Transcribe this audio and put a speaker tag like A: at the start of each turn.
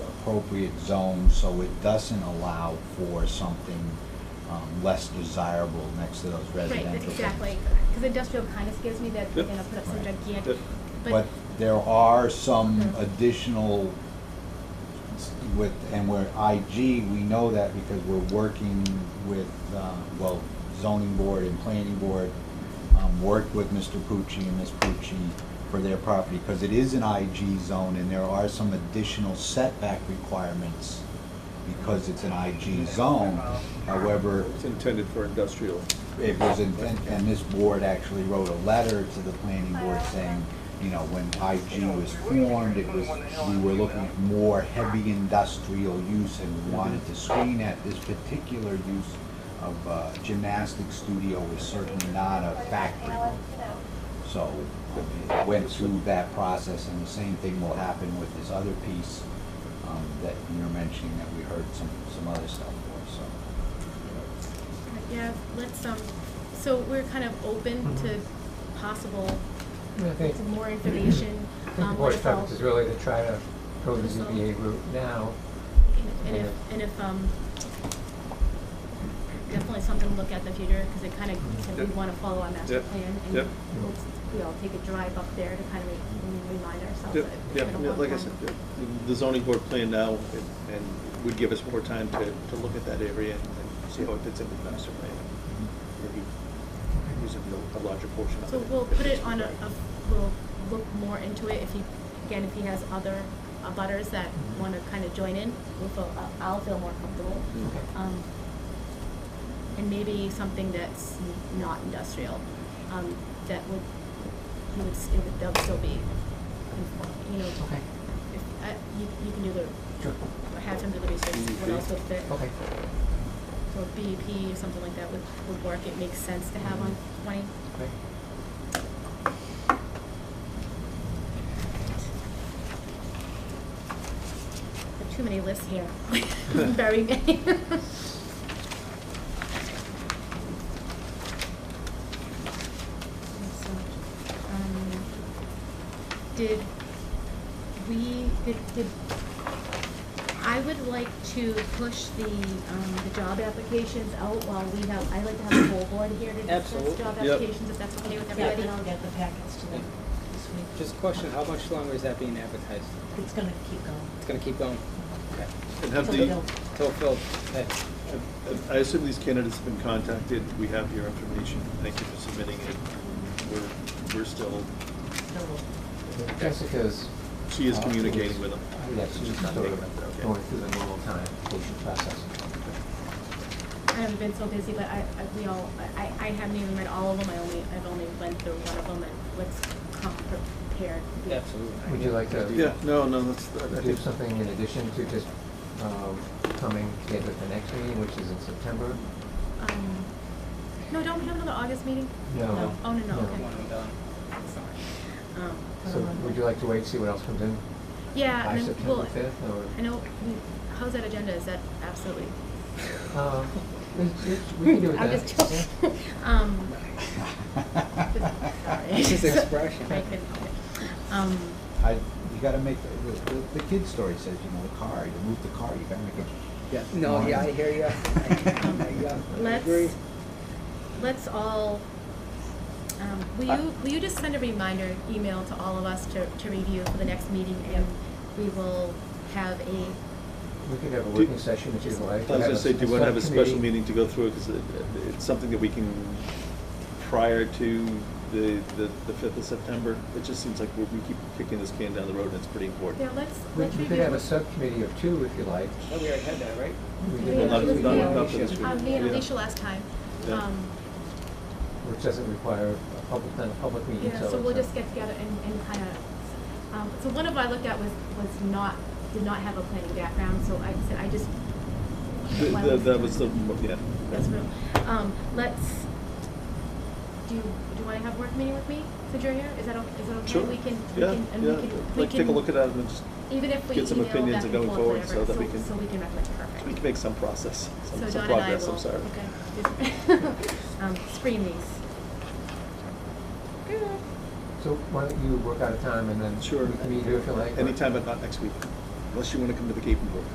A: appropriate zone so it doesn't allow for something um, less desirable next to those
B: Right,
A: residential
B: that's
A: things.
B: exactly, because industrial kind of scares me that they're
C: Yep.
B: gonna put up some
A: Right.
B: gigantic,
C: Yep.
A: But
B: but,
A: there are some
B: Mhm.
A: additional with, and where IG, we know that because we're working with, uh, well, zoning board and planning board, um, worked with Mr. Pucci and Ms. Pucci for their property, because it is an IG zone and there are some additional setback requirements because it's an IG zone. However,
C: It's intended for industrial.
A: it was, in- and and this board actually wrote a letter to the planning board saying, you know, when IG was formed, it was, we were looking at more heavy industrial use and we wanted to screen that. This particular use of uh, gymnastics studio is certainly not a factory. So um, it went through that process and the same thing will happen with this other piece um, that you're mentioning that we heard some, some other stuff for, so.
B: yeah, let's, um, so we're kind of open
D: Mm-hmm.
B: to possible,
D: I think,
B: to more information.
D: I think the
B: um,
D: board's
B: if all-
D: preference is really to try to go the
B: Just all-
D: ZBA route now.
B: um, And if, and if, um, definitely something to look at in the future, because it kind
D: Mm-hmm.
B: of, said we
C: Yep.
B: want to follow our master
C: Yep.
B: plan.
C: Yep.
B: And we'll, we all take a drive up there to kind of remind ourselves
C: Yeah,
B: that it's
C: yeah,
B: been a
C: yeah,
B: long
C: like I
B: time.
C: said, the- the zoning board plan now, and- and would give us more time to, to look at that area and and see how it fits into the master plan. Maybe use a a larger portion of it.
B: So we'll
C: if
B: put
C: it's
B: it on a,
C: right.
B: a, we'll look more into it if he, again, if he has other uh, butters that wanna kinda join in, we'll feel, I'll- I'll feel more comfortable.
C: Mm.
B: Um, and maybe something that's n- not industrial, um, that would, he would, s- it would, that would still be, you know,
D: Okay,
B: if, I, you, you can do the,
D: sure,
B: have him do the research, what else would fit.
D: okay.
B: So BEP or something like that would, would work, it makes sense to have on
D: Mm-hmm.
B: twenty.
D: great.
B: There are too many lists here. Very many. Um, Did we, did, did, I would like to push the, um, the job applications out while we have, I like to have the whole board here to discuss
E: Absolutely.
B: job
C: Yep.
B: applications, if that's okay with
E: Yeah,
B: everybody.
E: and I'll get the packets to them this week.
F: Just a question, how much longer is that being advertised?
E: It's gonna keep going.
F: It's gonna keep going? Okay.
C: And have
E: So
C: the,
E: they'll-
F: Till filled, okay.
C: and- I assume these candidates have been contacted, we have your information, thank you for submitting it. We're, we're still,
E: they'll-
D: Jessica's.
C: she is communicating with them.
D: Yeah, she's just not
C: Okay.
D: going through the normal time, patient process.
B: I haven't been so busy, but I, I, we all, I, I haven't even read all of them, I only, I've only went through one of them and what's come prepared.
F: Absolutely.
D: Would you like to?
C: Yeah, no, no, that's, I
D: do
C: think,
D: something in addition to just um, coming together at the next meeting, which is in September?
B: Um, no, don't we have another August meeting?
D: No.
B: Oh, no, no,
D: No.
B: okay.
F: One and done.
B: Sorry. Um,
D: So would you like to wait, see what else comes in?
B: yeah,
D: By
B: and then,
D: September
B: well,
D: fifth, or?
B: I know, we- how's that agenda, is that absolutely?
D: Um, it's- it's- We can do it
B: I'm
D: then.
B: just joking. Um, sorry.
F: It's his expression.
B: I couldn't help it. Um,
A: I, you gotta make, the, the, the kid story says, you know, the car, you move the car, you gotta make it.
F: Yeah, no, yeah, I hear you. I agree.
B: Um, Let's, let's all, um, will
C: I-
B: you, will you just send a reminder email to all of us to, to review for the next meeting? And we will have a,
D: We could have a
C: Do-
D: working session if you'd like.
C: I was gonna say, do you wanna have a special
D: subcommittee.
C: meeting to go through, because it's something that we can, prior to the, the, the fifth of September, it just seems like we, we keep kicking this can down the road, and it's pretty
B: yeah,
C: important.
B: let's,
D: We
B: let's
D: we
B: review.
D: could have a subcommittee of two if you like.
F: Oh, we already had that, right?
D: We
B: Yeah,
D: did
B: yeah,
D: that
B: Not-
D: with
B: not-
D: the
B: not
D: issue,
C: this week.
B: Uh, me and
C: Yeah.
B: Alicia last time.
C: Yeah.
B: Um,
D: Which doesn't require a public, not a public meeting, so.
B: Yeah, so
D: it's
B: we'll
D: not-
B: just get together and, and kind of, um, so one of I looked at was, was not, did not have a planning background, so I said, I just.
C: The-
B: why
C: the-
B: don't we-
C: That was the, yeah.
B: That's real. Um, let's, do you, do you wanna have a work meeting with me since you're here? Is that okay? Is that okay?
C: Sure,
B: We can, we
C: yeah,
B: can, and we
C: yeah,
B: can, we
C: like, take a
B: can-
C: look at that and just,
B: Even if we
C: get some
B: email back
C: opinions
B: and
C: going
B: forth,
C: forward
B: whatever,
C: so that
B: so-
C: we can-
B: So we can recommend, perfect.
C: we can make some process,
B: So
C: some, some
B: Dawn and I
C: progress, I'm
B: will-
C: sorry.
B: Okay. Um, screen these. Good.
D: So why don't you work out a time and then.
C: Sure.
D: We can meet here if you like. or-
C: Anytime, but not next week. unless you want to come to the Cape and Board.